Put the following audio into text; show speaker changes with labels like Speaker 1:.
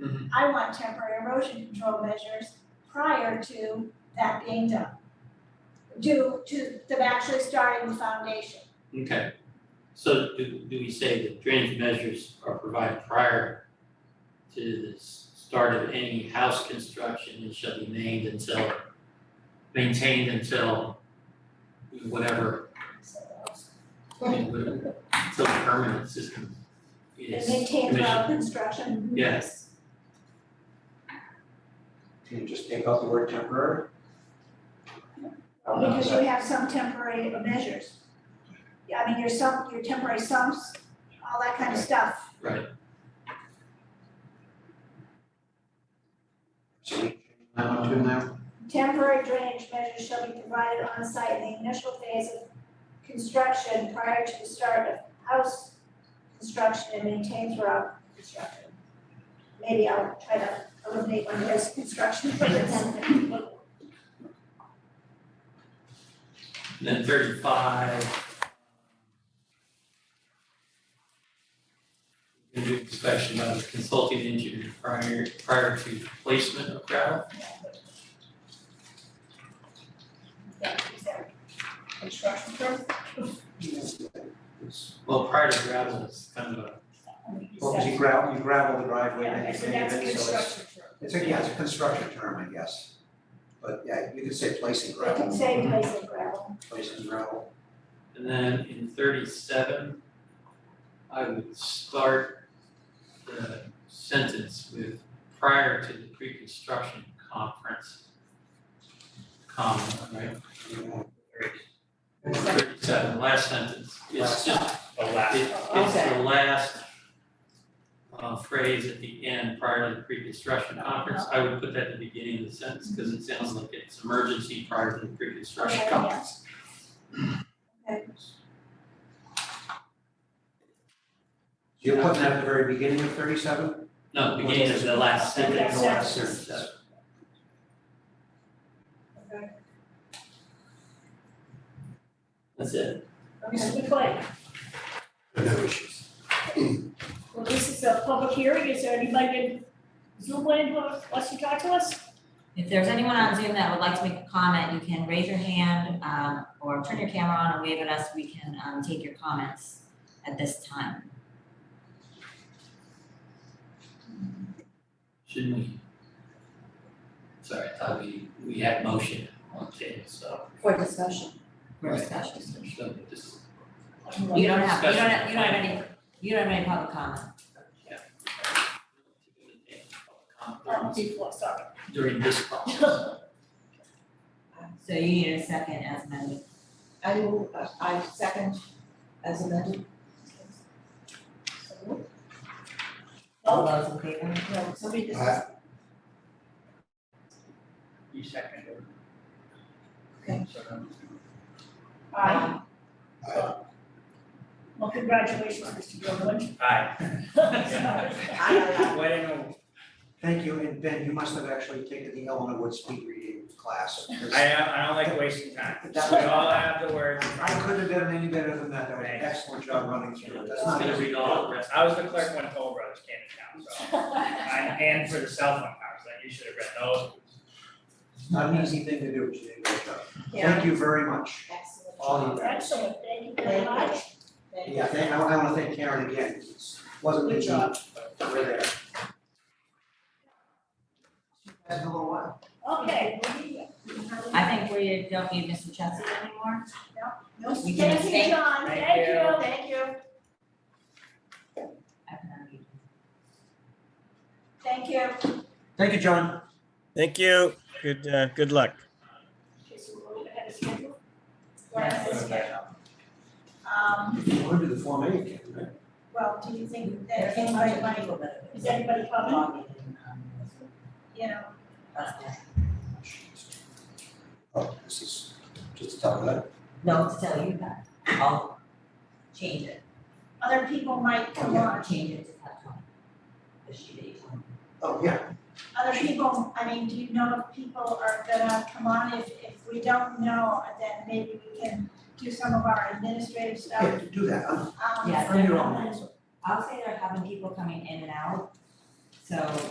Speaker 1: Mhm.
Speaker 2: I want temporary erosion control measures prior to that being done. Due to them actually starting the foundation.
Speaker 1: Okay, so do, do we say that drainage measures are provided prior to the s- start of any house construction and shall be named until, maintained until whatever,
Speaker 2: So
Speaker 1: until the permanent system
Speaker 2: And
Speaker 1: is
Speaker 2: maintain
Speaker 1: commissioned.
Speaker 2: throughout construction.
Speaker 1: Yes,
Speaker 3: Can you just take out the word temporary? Oh, no,
Speaker 2: Because you
Speaker 3: sorry.
Speaker 2: have some temporary measures. Yeah, I mean, your sump, your temporary sumps, all that kind of stuff.
Speaker 1: right,
Speaker 3: So we, I want to now,
Speaker 2: Temporary drainage measures shall be provided on site in the initial phase of construction prior to the start of house construction and maintained throughout construction. Maybe I'll try to eliminate one of those construction words.
Speaker 1: And then thirty-five. Can do inspection by the consulting engineer prior, prior to placement of gravel.
Speaker 2: Construction permit?
Speaker 1: Well, prior to gravel, it's kind of a,
Speaker 3: well, 'cause you gravel, you gravel the driveway, then
Speaker 4: Yeah,
Speaker 3: you
Speaker 4: so
Speaker 3: pave
Speaker 4: that's
Speaker 3: it, so it's,
Speaker 4: construction term.
Speaker 3: it's a, yeah, it's a construction term, I guess. But yeah, you could say placing
Speaker 2: They can
Speaker 3: gravel,
Speaker 2: say place of gravel.
Speaker 3: placing gravel,
Speaker 1: and then in thirty-seven, I would start the sentence with prior to the pre-construction conference. Comma, right?
Speaker 3: you know,
Speaker 1: Thirty-seven, last sentence, it's just,
Speaker 5: The
Speaker 1: it-
Speaker 5: last,
Speaker 1: it's the last uh, phrase at the end, prior to the pre-construction conference, I would put that at the beginning of the sentence, because it sounds like it's emergency prior to the pre-construction
Speaker 2: Okay, yeah.
Speaker 1: conference.
Speaker 3: You're putting that at the very beginning of thirty-seven?
Speaker 1: No, the beginning of the last
Speaker 2: Yeah,
Speaker 1: sentence.
Speaker 2: so- Last
Speaker 1: sentence.
Speaker 2: Okay.
Speaker 1: That's it.
Speaker 4: Okay, so good point.
Speaker 3: No issues.
Speaker 4: Well, this is a public hearing, is there anybody in Zoom land who wants to talk to us?
Speaker 6: If there's anyone on Zoom that would like to make a comment, you can raise your hand, um, or turn your camera on and wave at us. We can, um, take your comments at this time.
Speaker 1: Shouldn't we? Sorry, I thought we, we had motion on table, so.
Speaker 6: For discussion. For
Speaker 1: Right.
Speaker 6: discussion.
Speaker 1: So just,
Speaker 6: You don't have, you don't have, you don't have any, you don't have any public comment.
Speaker 1: yeah.
Speaker 4: Um, before, sorry.
Speaker 1: During this process.
Speaker 6: So you need a second as amended.
Speaker 7: I will, uh, I second as amended.
Speaker 6: All those in favor?
Speaker 7: No, somebody just.
Speaker 3: Aye.
Speaker 5: you seconded.
Speaker 7: Okay.
Speaker 4: Aye.
Speaker 3: Aye.
Speaker 4: Well, congratulations, Mr. Gilman.
Speaker 5: Aye.
Speaker 7: Aye,
Speaker 5: Why didn't
Speaker 3: Thank you, and Ben, you must have actually taken the Eleanor Wood speed reading class. because
Speaker 5: I, I don't like wasting time.
Speaker 3: That
Speaker 5: We
Speaker 3: was-
Speaker 5: all have the words. in front
Speaker 3: I
Speaker 5: of us.
Speaker 3: couldn't have done any better than that, that was an
Speaker 5: Thanks.
Speaker 3: excellent job running through it, that's
Speaker 1: Just
Speaker 3: not
Speaker 1: gonna
Speaker 3: easy.
Speaker 1: read all the rest.
Speaker 5: I was the clerk when Toll Brothers came to town, so. I- And for the cell phone towers, like you should have read those.
Speaker 3: It's not an easy thing to do, but you did a great job.
Speaker 7: Yeah.
Speaker 3: Thank you very much,
Speaker 7: Excellent.
Speaker 3: all you guys.
Speaker 4: Excellent, thank you very much.
Speaker 7: Thank you.
Speaker 3: Yeah, thank, I want to thank Karen again, it wasn't
Speaker 4: Good
Speaker 3: easy,
Speaker 4: job.
Speaker 3: but we're there. See you guys in a little while.
Speaker 4: Okay.
Speaker 6: I think we don't need Mr. Chesney anymore.
Speaker 2: No,
Speaker 6: We can
Speaker 2: thank you,
Speaker 6: abstain.
Speaker 2: John,
Speaker 5: Thank
Speaker 2: thank
Speaker 5: you.
Speaker 2: you, thank you,
Speaker 6: I can unmute.
Speaker 2: thank you.
Speaker 3: Thank you, John.
Speaker 8: Thank you. Good, uh, good luck.
Speaker 4: Okay, so we're a little ahead of schedule.
Speaker 2: We're ahead of schedule. Um,
Speaker 3: We're gonna do the Form A again, right?
Speaker 2: well, do you think that anybody might,
Speaker 4: Is anybody coming?
Speaker 6: um,
Speaker 2: you know,
Speaker 3: Oh, this is just to talk about it.
Speaker 6: No, to tell you that, I'll change it.
Speaker 2: other people might
Speaker 6: I'm
Speaker 2: come
Speaker 6: gonna
Speaker 2: on,
Speaker 6: change it to that one. The sheet that you told me.
Speaker 3: Oh, yeah.
Speaker 2: other people, I mean, do you know if people are gonna come on? If, if we don't know, then maybe we can do some of our administrative
Speaker 3: Yeah,
Speaker 2: stuff.
Speaker 3: do that, huh?
Speaker 2: Um,
Speaker 6: Yeah,
Speaker 3: On your
Speaker 6: they're
Speaker 3: own.
Speaker 6: having- I'll say they're having people coming in and out, so